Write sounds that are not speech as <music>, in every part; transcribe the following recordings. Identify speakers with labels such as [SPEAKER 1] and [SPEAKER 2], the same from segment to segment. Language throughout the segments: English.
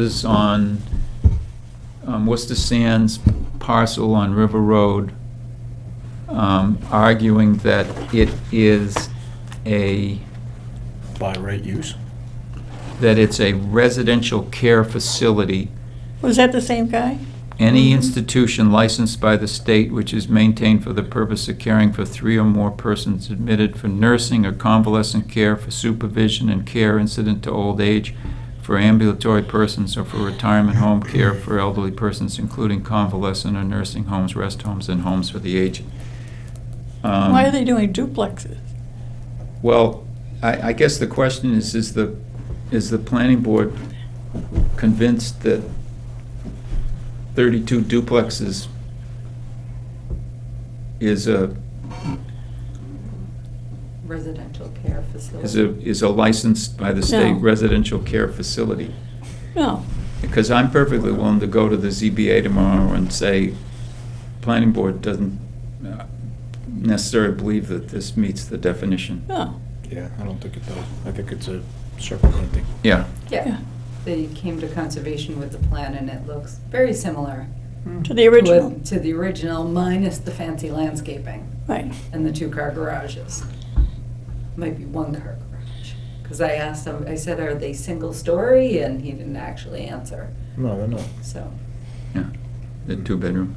[SPEAKER 1] is on um, Worcester Sands parcel on River Road, um, arguing that it is a,
[SPEAKER 2] by right use.
[SPEAKER 1] that it's a residential care facility.
[SPEAKER 3] Was that the same guy?
[SPEAKER 1] Any institution licensed by the state which is maintained for the purpose of caring for three or more persons admitted for nursing or convalescent care, for supervision and care incident to old age, for ambulatory persons, or for retirement home care for elderly persons, including convalescent or nursing homes, rest homes, and homes for the aged. Um,
[SPEAKER 3] Why are they doing duplexes?
[SPEAKER 1] Well, I, I guess the question is, is the, is the planning board convinced that thirty-two duplexes is a,
[SPEAKER 4] residential care facility.
[SPEAKER 1] is a, is a licensed by the state
[SPEAKER 3] No.
[SPEAKER 1] residential care facility?
[SPEAKER 3] No.
[SPEAKER 1] Because I'm perfectly willing to go to the ZBA tomorrow and say, planning board doesn't uh, necessarily believe that this meets the definition.
[SPEAKER 3] No.
[SPEAKER 2] Yeah, I don't think it does. I think it's a separate thing.
[SPEAKER 1] Yeah,
[SPEAKER 4] Yeah,
[SPEAKER 3] Yeah.
[SPEAKER 4] they came to conservation with the plan and it looks very similar.
[SPEAKER 3] To the
[SPEAKER 4] to it-
[SPEAKER 3] original.
[SPEAKER 4] To the original minus the fancy landscaping
[SPEAKER 3] Right.
[SPEAKER 4] and the two-car garages. Might be one-car garage. Because I asked him, I said, are they single-story? And he didn't actually answer,
[SPEAKER 2] No, they're not.
[SPEAKER 4] so.
[SPEAKER 1] yeah, the two-bedroom.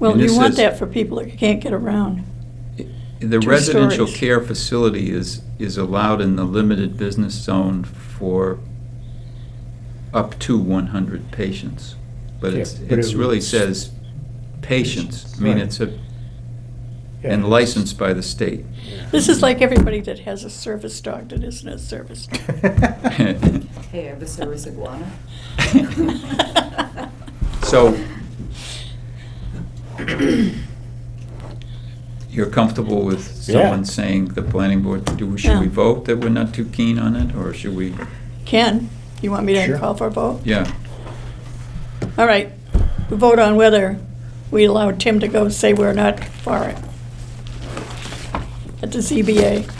[SPEAKER 3] Well,
[SPEAKER 1] And
[SPEAKER 3] you
[SPEAKER 1] this
[SPEAKER 3] want
[SPEAKER 1] is-
[SPEAKER 3] that for people that can't get around.
[SPEAKER 1] The
[SPEAKER 3] Two
[SPEAKER 1] residential
[SPEAKER 3] stories.
[SPEAKER 1] care facility is, is allowed in the limited business zone for up to one hundred patients. But
[SPEAKER 2] Yeah,
[SPEAKER 1] it's,
[SPEAKER 2] but
[SPEAKER 1] it's
[SPEAKER 2] it
[SPEAKER 1] really
[SPEAKER 2] was-
[SPEAKER 1] says patients, I mean,
[SPEAKER 2] Right.
[SPEAKER 1] it's a,
[SPEAKER 2] Yeah.
[SPEAKER 1] and licensed by <laughs> the state.
[SPEAKER 3] This is like everybody that has a service dog that isn't a service dog.
[SPEAKER 2] <laughs>
[SPEAKER 4] Hey, I have a
[SPEAKER 3] <laughs>
[SPEAKER 4] service iguana.
[SPEAKER 1] So <laughs> you're comfortable with
[SPEAKER 2] Yeah.
[SPEAKER 1] someone saying the planning board, do, we- should we
[SPEAKER 3] Yeah.
[SPEAKER 1] vote that we're not too keen on it, or should we,
[SPEAKER 3] Ken, you want me to
[SPEAKER 2] Sure.
[SPEAKER 3] call for a vote?
[SPEAKER 1] yeah?
[SPEAKER 3] All right. We vote on whether we allow Tim to go say we're not for it. At the ZBA.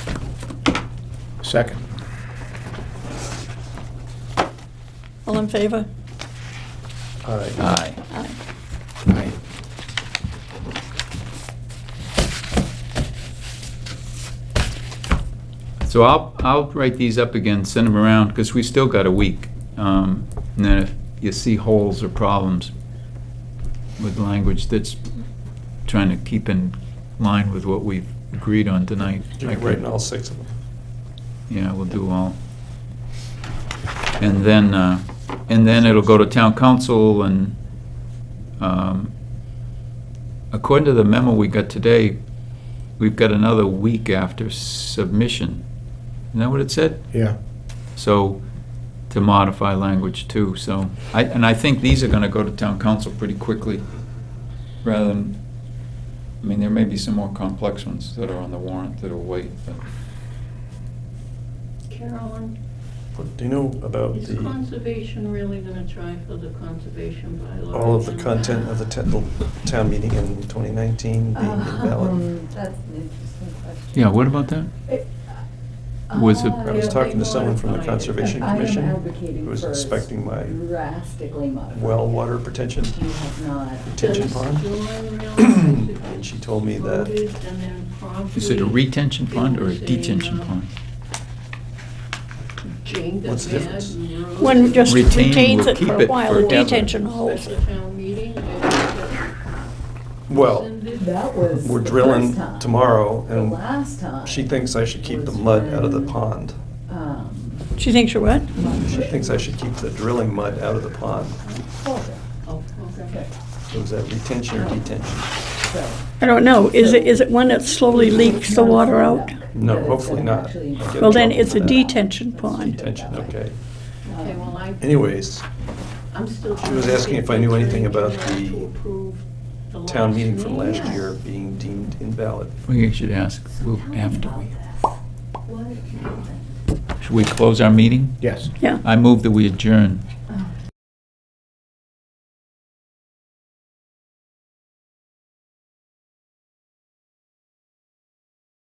[SPEAKER 2] <laughs> Second.
[SPEAKER 3] All in favor?
[SPEAKER 2] All right.
[SPEAKER 1] Aye.
[SPEAKER 3] Aye.
[SPEAKER 1] So I'll, I'll write these up again, send them around, because we still got a week. Um, And then if you see holes or problems with language that's trying to keep in line with what we've agreed on tonight.
[SPEAKER 5] You
[SPEAKER 1] I
[SPEAKER 5] can
[SPEAKER 1] could-
[SPEAKER 5] write in all six of them.
[SPEAKER 1] Yeah, we'll do all. And then, uh, and then it'll go to town council and, um, according to the memo we got today, we've got another week after submission. Isn't that what it said?
[SPEAKER 2] Yeah.
[SPEAKER 1] So, to modify language too, so, I, and I think these are gonna go to town council pretty quickly, rather than, I mean, there may be some more complex ones that are on the warrant that'll wait, but.
[SPEAKER 6] Carolyn,
[SPEAKER 5] What Do you know about
[SPEAKER 6] is
[SPEAKER 5] the,
[SPEAKER 6] conservation really gonna try for the conservation bylaw?
[SPEAKER 5] all of the content of the ta- the town meeting in 2019 being invalid?
[SPEAKER 4] Um, <laughs> That's an interesting question.
[SPEAKER 1] Yeah, what about that?
[SPEAKER 4] It- uh,
[SPEAKER 1] Was it-
[SPEAKER 4] I
[SPEAKER 5] I was
[SPEAKER 4] don't
[SPEAKER 5] talking to
[SPEAKER 4] think
[SPEAKER 5] someone from the
[SPEAKER 6] modified it.
[SPEAKER 5] Conservation
[SPEAKER 4] I am
[SPEAKER 5] Commission
[SPEAKER 4] advocating
[SPEAKER 5] who was
[SPEAKER 4] for
[SPEAKER 5] inspecting my
[SPEAKER 4] Drastically modified.
[SPEAKER 5] well water pretension,
[SPEAKER 4] You have not.
[SPEAKER 5] retention
[SPEAKER 6] Does
[SPEAKER 5] pond.
[SPEAKER 6] Dawn
[SPEAKER 5] <clears throat>
[SPEAKER 6] realize it
[SPEAKER 5] And she
[SPEAKER 6] was
[SPEAKER 5] told me that-
[SPEAKER 6] voted and then promptly
[SPEAKER 1] Is it a retention pond or a
[SPEAKER 6] people saying,
[SPEAKER 1] detention
[SPEAKER 6] uh,
[SPEAKER 1] pond?
[SPEAKER 6] Jane got
[SPEAKER 5] What's the
[SPEAKER 6] mad
[SPEAKER 5] difference?
[SPEAKER 6] and wrote-
[SPEAKER 3] One just
[SPEAKER 1] Retain will
[SPEAKER 3] retains it
[SPEAKER 1] keep
[SPEAKER 3] for a
[SPEAKER 1] it
[SPEAKER 3] while,
[SPEAKER 1] forever.
[SPEAKER 3] detention holds it.
[SPEAKER 6] Special town meeting. and it
[SPEAKER 5] Well,
[SPEAKER 6] rescinded.
[SPEAKER 4] That was.
[SPEAKER 5] we're
[SPEAKER 4] the
[SPEAKER 5] drilling
[SPEAKER 4] first time.
[SPEAKER 5] tomorrow
[SPEAKER 4] The
[SPEAKER 5] and
[SPEAKER 4] last time.
[SPEAKER 5] she thinks I should keep the mud out of the pond.
[SPEAKER 4] um,
[SPEAKER 3] She thinks you're what?
[SPEAKER 5] She thinks I should keep the drilling mud out of the pond.
[SPEAKER 4] Oh,
[SPEAKER 6] Oh, okay.
[SPEAKER 4] okay,
[SPEAKER 5] So is that retention or detention?
[SPEAKER 4] so-
[SPEAKER 3] I don't know, is it, is it one that slowly leaks the water out?
[SPEAKER 5] No,
[SPEAKER 4] But it's
[SPEAKER 5] hopefully not.
[SPEAKER 4] actually-
[SPEAKER 5] I'll get in
[SPEAKER 3] Well, then
[SPEAKER 5] trouble
[SPEAKER 3] it's
[SPEAKER 5] for
[SPEAKER 3] a
[SPEAKER 5] that.
[SPEAKER 3] detention pond.
[SPEAKER 5] Detention, okay.
[SPEAKER 6] Okay, well, I.
[SPEAKER 5] Anyways,
[SPEAKER 6] I'm still.
[SPEAKER 5] She was
[SPEAKER 6] trying to
[SPEAKER 5] asking
[SPEAKER 6] get
[SPEAKER 5] if I knew
[SPEAKER 6] the
[SPEAKER 5] anything
[SPEAKER 6] attorney
[SPEAKER 5] about
[SPEAKER 6] general
[SPEAKER 5] the
[SPEAKER 6] to approve the
[SPEAKER 5] town meeting from
[SPEAKER 6] meeting.
[SPEAKER 5] last year being deemed invalid.
[SPEAKER 1] We should ask,
[SPEAKER 4] So
[SPEAKER 1] we'll-
[SPEAKER 4] tell me
[SPEAKER 1] after
[SPEAKER 4] about
[SPEAKER 1] we,
[SPEAKER 4] this. What happened?
[SPEAKER 1] should we close our meeting?
[SPEAKER 2] Yes.
[SPEAKER 3] Yeah.
[SPEAKER 1] I move that we adjourn.